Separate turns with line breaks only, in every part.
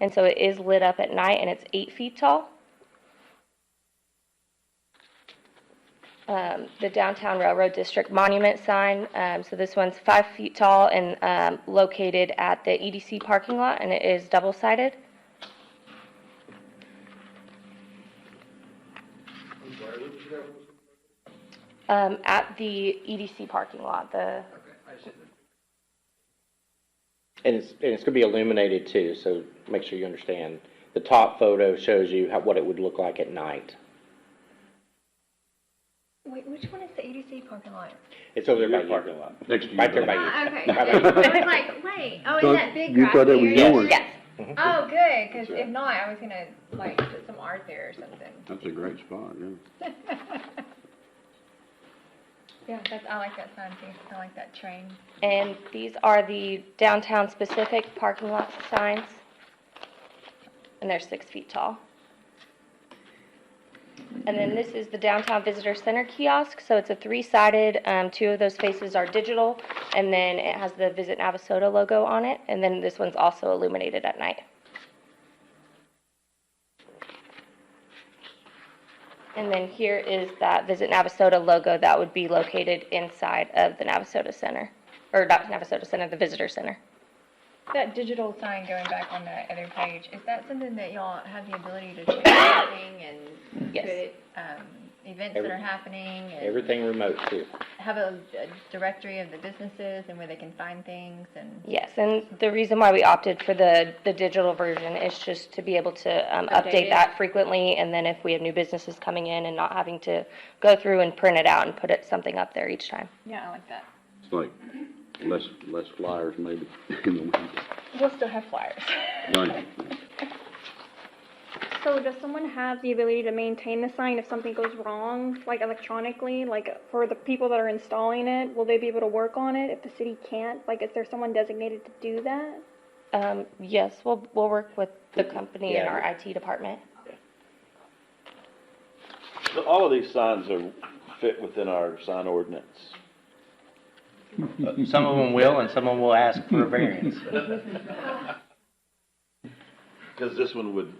And so it is lit up at night and it's eight feet tall. Um, the downtown railroad district monument sign, um, so this one's five feet tall and, um, located at the EDC parking lot and it is double-sided. Um, at the EDC parking lot, the,
And it's, and it's gonna be illuminated too, so make sure you understand. The top photo shows you how, what it would look like at night.
Wait, which one is the ADC parking lot?
It's over there by you.
lot.
Next to you.
Right there by
Bill.
you.
Ah, okay.
Right
I was like, wait, oh,
Thought-
is that big
you
grassy
thought that was
area?
yours.
yes,
Oh, good, because if not, I was gonna like put some art there or something.
That's a great spot, yeah.
Yeah, that's, I like that sign too. I like that train.
and these are the downtown specific parking lot signs. And they're six feet tall. And then this is the downtown visitor center kiosk, so it's a three-sided, um, two of those faces are digital, and then it has the Visit Navasota logo on it, and then this one's also illuminated at night. And then here is that Visit Navasota logo that would be located inside of the Navasota Center, or not Navasota Center, the Visitor Center.
That digital sign going back on that other page, is that something that y'all have the ability to change anything and
Yes.
put, um, events that are
Every-
happening and
Everything remote too.
have a, a directory of the businesses and where they can find things and?
Yes, and the reason why we opted for the, the digital version is just to be able to um,
Update
update
it.
that frequently, and then if we have new businesses coming in and not having to go through and print it out and put it, something up there each time.
Yeah, I like that.
It's like less, less flyers maybe in the wind.
We'll still have flyers.
Right.
So does someone have the ability to maintain the sign if something goes wrong, like electronically, like for the people that are installing it? Will they be able to work on it if the city can't? Like, is there someone designated to do that?
Um, Yes, we'll, we'll work with the company and
Yeah.
our IT department.
So all of these signs are, fit within our sign ordinance.
Some of them will, and some of them will ask for a variance.
Cause this one would,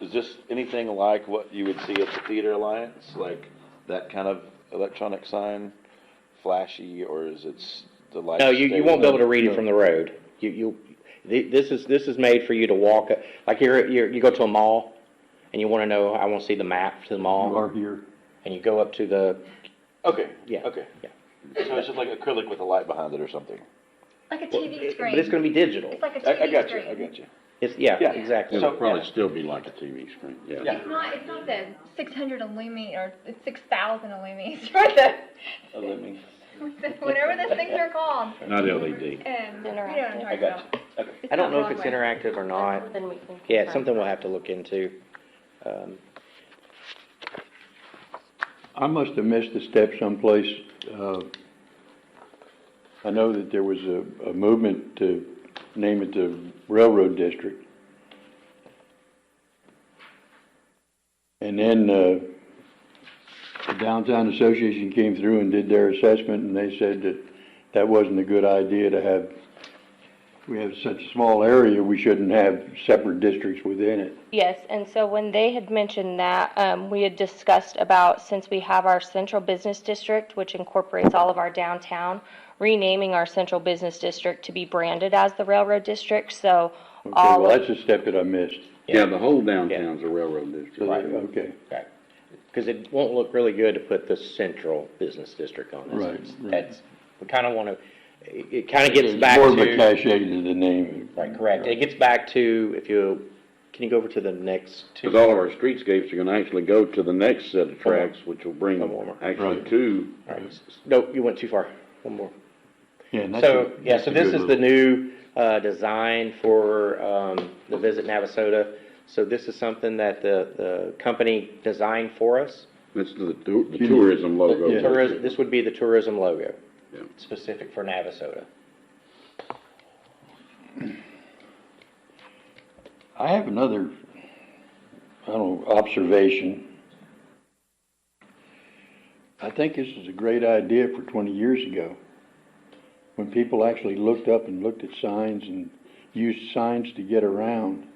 is this anything like what you would see at the Theater Alliance? Like that kind of electronic sign, flashy, or is it s- the light?
No, you, you won't be able to read it from the road. You, you, thi- this is, this is made for you to walk, like you're, you're, you go to a mall and you wanna know, I wanna see the map to the
All
mall,
are here.
and you go up to the,
Okay,
yeah.
okay.
yeah.
So it's just like acrylic with a light behind it or something?
Like a
Well,
TV
it-
screen.
But it's gonna be digital.
It's like a
I,
TV
I got you,
screen.
I got you.
It's, yeah,
Yeah.
exactly.
It would
yeah.
probably still be like a TV screen,
Yeah.
yeah.
It's not, it's not the six hundred Illumi or six thousand Illumis or the,
Oh, let me-
whatever those things are called.
Not E LED.
Um, you know what I'm
Interactive.
talking
I
got
about.
I don't know if it's
Broadway.
interactive or not.
Then we can
Yeah,
confirm.
it's something we'll have to look into. Um,
I must have missed a step someplace. Uh, I know that there was a, a movement to name it the railroad district. And then, uh, the downtown association came through and did their assessment and they said that that wasn't a good idea to have, we have such a small area, we shouldn't have separate districts within it.
Yes, and so when they had mentioned that, um, we had discussed about, since we have our central business district, which incorporates all of our downtown, renaming our central business district to be branded as the railroad district, so
Okay,
all
well,
of,
that's a step that I missed.
Yeah,
the whole
downtown's
a railroad district. Okay.
Right. Because it won't look really good to put the central business district on this.
Right,
It's-
right.
That's, we kind of want to, it kind of gets back
More of a
to.
cachet to the name.
Right, correct. It gets back to, if you, can you go over to the next two?
Because all of our streetscapes are gonna actually go to the next set of tracks, which will bring
Come on.
Right.
actually two.
All right. No, you went too far. One more.
Yeah, and that's
So,
a-
yeah,
that's
so
a
this
good
is the
little-
new uh, design for um, the Visit Navasota. So this is something that the, the company designed for us.
That's the, tou- the tourism logo.
Yeah.
Tourism, this would be the tourism logo,
Yeah.
specific for Navasota.
I have another, I don't know, observation. I think this is a great idea for twenty years ago, when people actually looked up and looked at signs and used signs to get around.